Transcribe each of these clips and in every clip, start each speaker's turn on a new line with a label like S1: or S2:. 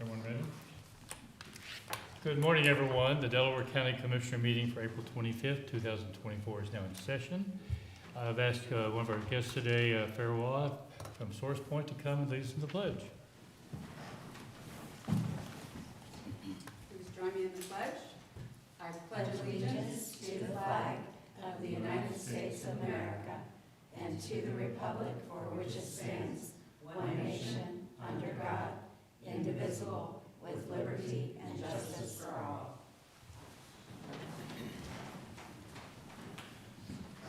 S1: Everyone ready? Good morning, everyone. The Delaware County Commissioner meeting for April 25th, 2024 is now in session. I've asked uh, one of our guests today, uh, Farewell, from Source Point, to come and lead us in the pledge.
S2: Please join me in the pledge. I pledge allegiance to the flag of the United States of America and to the republic for which it stands, one nation, under God, indivisible, with liberty and justice for all.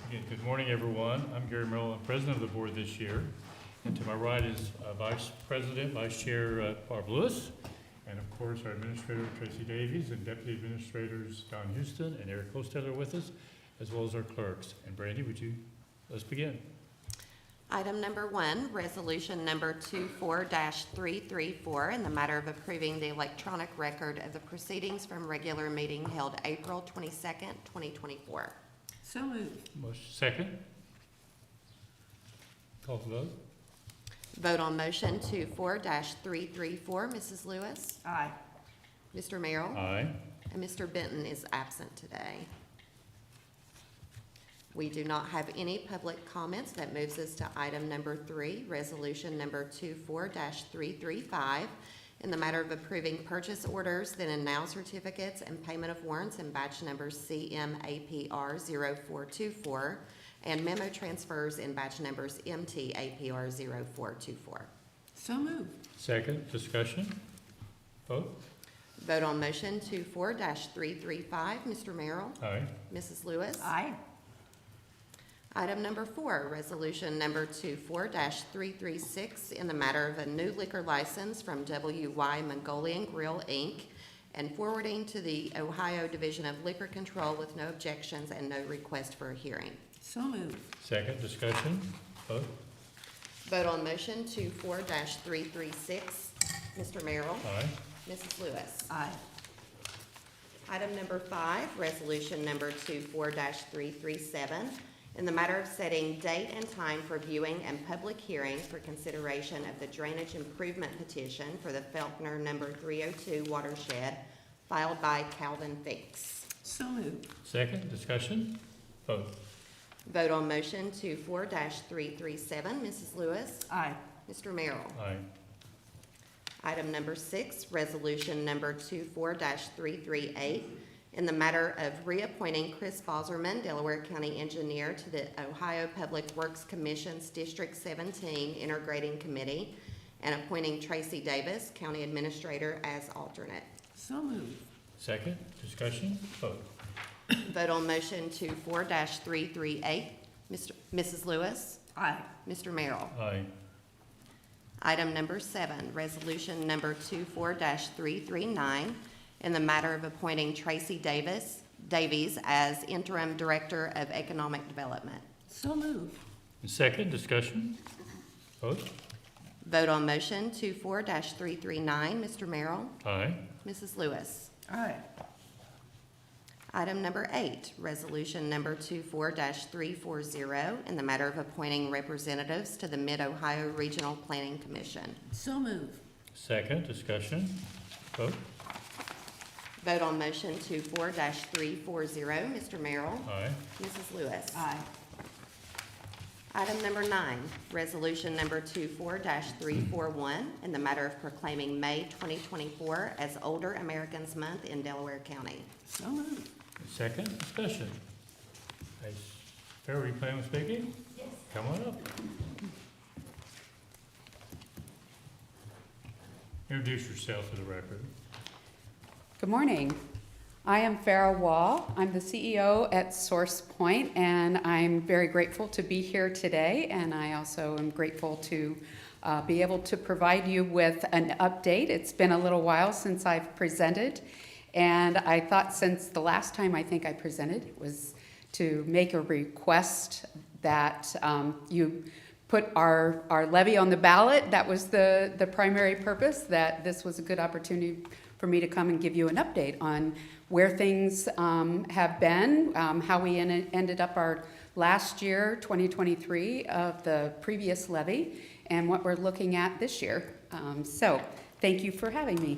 S1: Again, good morning, everyone. I'm Gary Merrill, I'm president of the board this year. And to my right is uh, Vice President, Vice Chair uh, Barb Lewis, and of course, our Administrator Tracy Davies, and Deputy Administrators Don Houston and Eric Hostetter with us, as well as our clerks. And Brandy, would you, let's begin.
S3: Item number one, resolution number 24-334, in the matter of approving the electronic record of the proceedings from regular meeting held April 22nd, 2024.
S4: So moved.
S1: Motion second. Call for vote.
S3: Vote on motion 24-334. Mrs. Lewis,
S4: Aye.
S3: Mr. Merrill,
S1: Aye.
S3: and Mr. Benton is absent today. We do not have any public comments. That moves us to item number three, resolution number 24-335, in the matter of approving purchase orders, then and now certificates and payment of warrants in batch number CMAPR 0424, and memo transfers in batch numbers MTAPR 0424.
S4: So moved.
S1: Second, discussion. Vote.
S3: Vote on motion 24-335. Mr. Merrill?
S1: Aye.
S3: Mrs. Lewis?
S4: Aye.
S3: Item number four, resolution number 24-336, in the matter of a new liquor license from WY Mongolian Grill, Inc., and forwarding to the Ohio Division of Liquor Control with no objections and no request for a hearing.
S4: So moved.
S1: Second, discussion. Vote.
S3: Vote on motion 24-336. Mr. Merrill?
S1: Aye.
S3: Mrs. Lewis?
S4: Aye.
S3: Item number five, resolution number 24-337, in the matter of setting date and time for viewing and public hearing for consideration of the drainage improvement petition for the Felkner Number 302 watershed filed by Calvin Finks.
S4: So moved.
S1: Second, discussion. Vote.
S3: Vote on motion 24-337. Mrs. Lewis?
S4: Aye.
S3: Mr. Merrill?
S1: Aye.
S3: Item number six, resolution number 24-338, in the matter of reappointing Chris Boserman, Delaware County Engineer, to the Ohio Public Works Commission's District 17 Integrating Committee, and appointing Tracy Davis, County Administrator, as alternate.
S4: So moved.
S1: Second, discussion. Vote.
S3: Vote on motion 24-338. Mr. Mrs. Lewis?
S4: Aye.
S3: Mr. Merrill?
S1: Aye.
S3: Item number seven, resolution number 24-339, in the matter of appointing Tracy Davis, Davies as interim director of economic development.
S4: So moved.
S1: And second, discussion. Vote.
S3: Vote on motion 24-339, Mr. Merrill,
S1: Aye.
S3: Mrs. Lewis.
S4: Aye.
S3: Item number eight, resolution number 24-340, in the matter of appointing representatives to the Mid-Ohio Regional Planning Commission.
S4: So moved.
S1: Second, discussion. Vote.
S3: Vote on motion 24-340, Mr. Merrill,
S1: Aye.
S3: Mrs. Lewis.
S4: Aye.
S3: Item number nine, resolution number 24-341, in the matter of proclaiming May 2024 as Older Americans Month in Delaware County.
S4: So moved.
S1: And Second, discussion. Hey, Farrell, are you planning on speaking? Yes. Come on up. Introduce yourself for the record.
S5: Good morning. I am Farah Wall. I'm the CEO at Source Point, and I'm very grateful to be here today. And I also am grateful to uh, be able to provide you with an update. It's been a little while since I've presented, and I thought since the last time I think I presented, it was to make a request that um, you put our, our levy on the ballot. That was the, the primary purpose, that this was a good opportunity for me to come and give you an update on where things um, have been, um, how we en- ended up our last year, 2023, of the previous levy, and what we're looking at this year. Um, So, thank you for having me.